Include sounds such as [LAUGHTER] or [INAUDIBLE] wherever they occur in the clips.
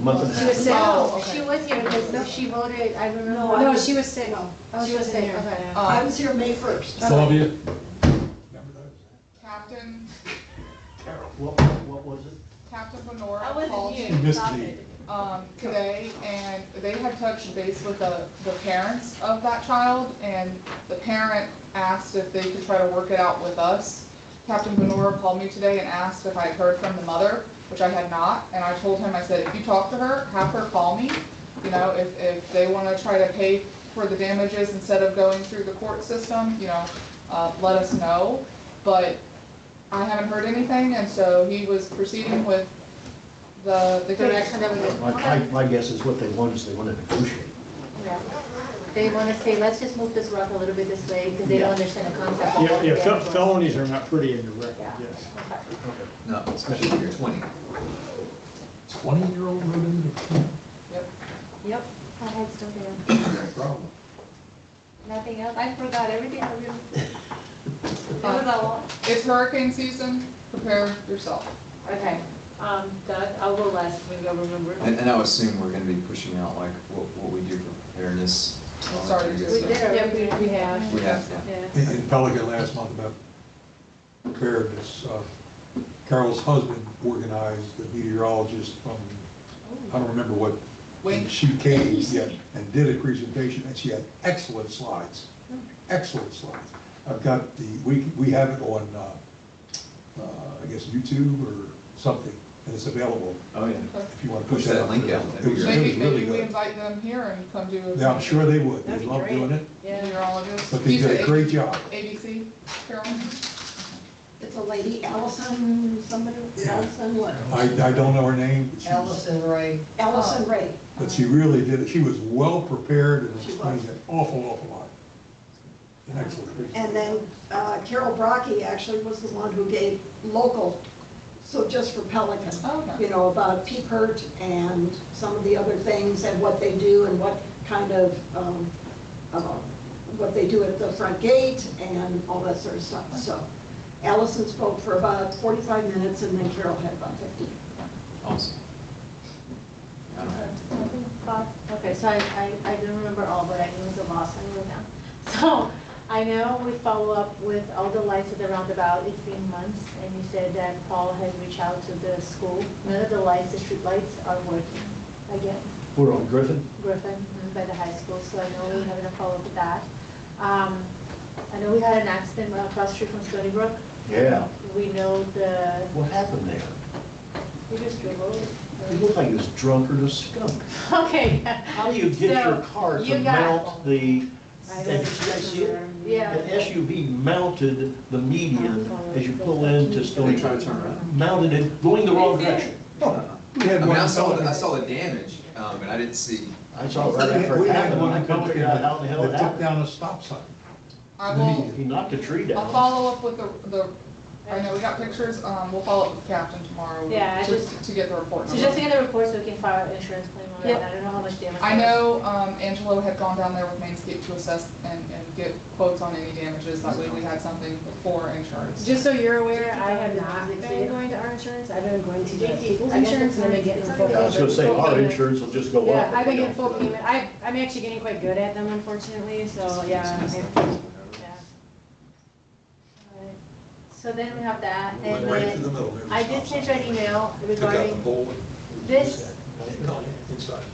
Month and a She half. was sick. Oh, No, okay. she was here, because she voted, I No, remember. I No, was- she was sick. No, Oh, she she was wasn't sick, here. okay. Uh, I Oh, was here May first. Sylvia? Captain, What, what was it? Captain Benora I wasn't called, here. You missed Stop me. it. um, today, and they had touched base with the, the parents of that child, and the parent asked if they could try to work it out with us. Captain Benora called me today and asked if I had heard from the mother, which I had not, and I told him, I said, if you talk to her, have her call me. You know, if, if they wanna try to pay for the damages instead of going through the court system, you know, uh, let us know. But I haven't heard anything, and so he was proceeding with the, the Direction connection. that we did. My, my, my guess is what they want is they want to negotiate. Yeah. They want to say, let's just move this rock a little bit this way, because they don't understand the concept. of Yeah, what yeah, we're fel- doing. felonies are not pretty in the record, Yeah. yes. No, especially if you're 20. Twenty-year-old running into camp, Yep, my head's still there. that's a problem. Nothing else, I forgot everything I really. It was a lot. It's hurricane season, prepare yourself. Okay, um, Doug, I'll go last, maybe I'll remember. And, and I would assume we're gonna be pushing out like what, what we do for preparedness. We'll start it. Oh, We did, already. we have. We have, yeah. In in Pelican last month about preparedness, uh, Carol's husband organized the meteorologist from, I don't remember what, Wayne. and she came yeah, and did a presentation, and she had excellent slides, excellent slides. I've got the, we, we have it on, uh, uh, I guess, YouTube or something, and it's available Oh, yeah. if you want to Push push that that out. link out, It that'd was- be great. it was Maybe, really maybe we good. invite them here and come do Yeah, I'm a sure they would, they love doing it, meteorologist. but they He's did a a great job. ABC, Carolyn. It's a lady, Allison, somebody, Allison what? I, I don't know her name, but she's- Allison Ray, Allison Ray. but she really did, it. she was well-prepared and She explained was. an awful, awful lot. An Excellent. And presentation. then uh, Carol Brockie actually was the one who gave local, so just for Pelican, Oh, okay. you know, about peep hurt and some of the other things and what they do and what kind of, um, uh, what they do at the front gate and all that sort of stuff. So Allison spoke for about 45 minutes and then Carol had about 15. Awesome. I don't have to. Bob, Okay, so I, I, I didn't remember all, but I knew the last I knew now. [LAUGHS] So I know we follow up with all the lights at the roundabout, it's been months, and you said that Paul had reached out to the school. None of the lights, the street lights are working again. We're on Griffin. Griffin mm-hmm, by the high school, so I know we're having a follow-up with that. Um, I know we had an accident right across the street from Stony Brook. Yeah. We know the, What happened there? we just drove over. He looked like he was drunk or a skunk. Okay. How do you get your car So, to you got- mount the, I an was- an Yeah. SUV mounted the median as you pull into Are Stony they trying Brook? to turn around? Mounted it, going the wrong They did. direction. Uh-uh. We had I mean, one I saw, in the- I Pelican- saw the damage, um, but I didn't see, I saw it we right had- after we it had happened, one I in couldn't figure Pelican out how the hell it That took happened. down a stop sign. I will, He knocked a tree I'll down. follow up with the, the, I know we got pictures, um, we'll follow up with Captain tomorrow. Yeah, I to- just- To get the report. So just to get the report so we can file an insurance claim on it, Yep. I don't know how much damage. I know, um, Angelo had gone down there with Mainscape to assess and, and get quotes on any damages, that way we had something for insurance. Just so you're aware, I have not been going to our insurance, I've been going to the people's insurance and I've been getting full I payment. was gonna say, full our payment. insurance will just go up. Yeah, I've been getting full payment, I, I'm actually getting quite good at them unfortunately, so yeah. I- Yeah. Alright. So then we have that, and Right through the then middle. there was a I stop did send you sign. an email Took out the regarding pole. this, Inside.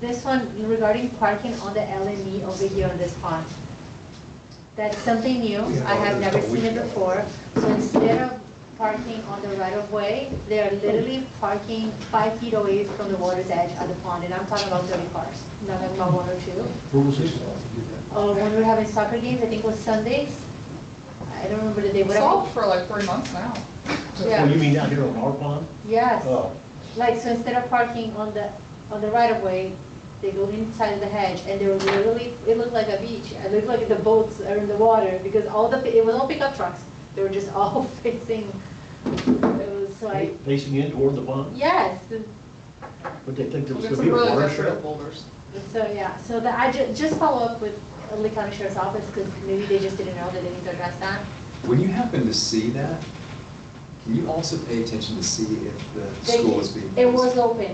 this one regarding parking on the LME over here on this pond. That's something new, I have never seen it before, so instead of parking on the right of way, they are literally parking five feet away from the water's edge of the pond, and I'm talking about thirty cars, not about one or two. Who was this? Or when we were having soccer games, I think it was Sundays, I don't remember the day, It's whatever. solved for like three months now. Oh, Yeah, you mean down here on our pond? yes, Oh, like, so instead of parking on the, on the right of way, they go inside the hedge, and they were literally, it looked like a beach, it looked like the boats are in the water, because all the, it was all pickup trucks, they were just [LAUGHS] all facing, it was, so I, facing in toward the pond? yes, the- But they think We'll there was get gonna some be a really water good show? boulders. so, yeah, so the, I ju, just follow up with Lee County Sheriff's Office, because maybe they just didn't know that they need to address that. when you happen to see that, can you also pay attention to see if the They- school is being? It was open,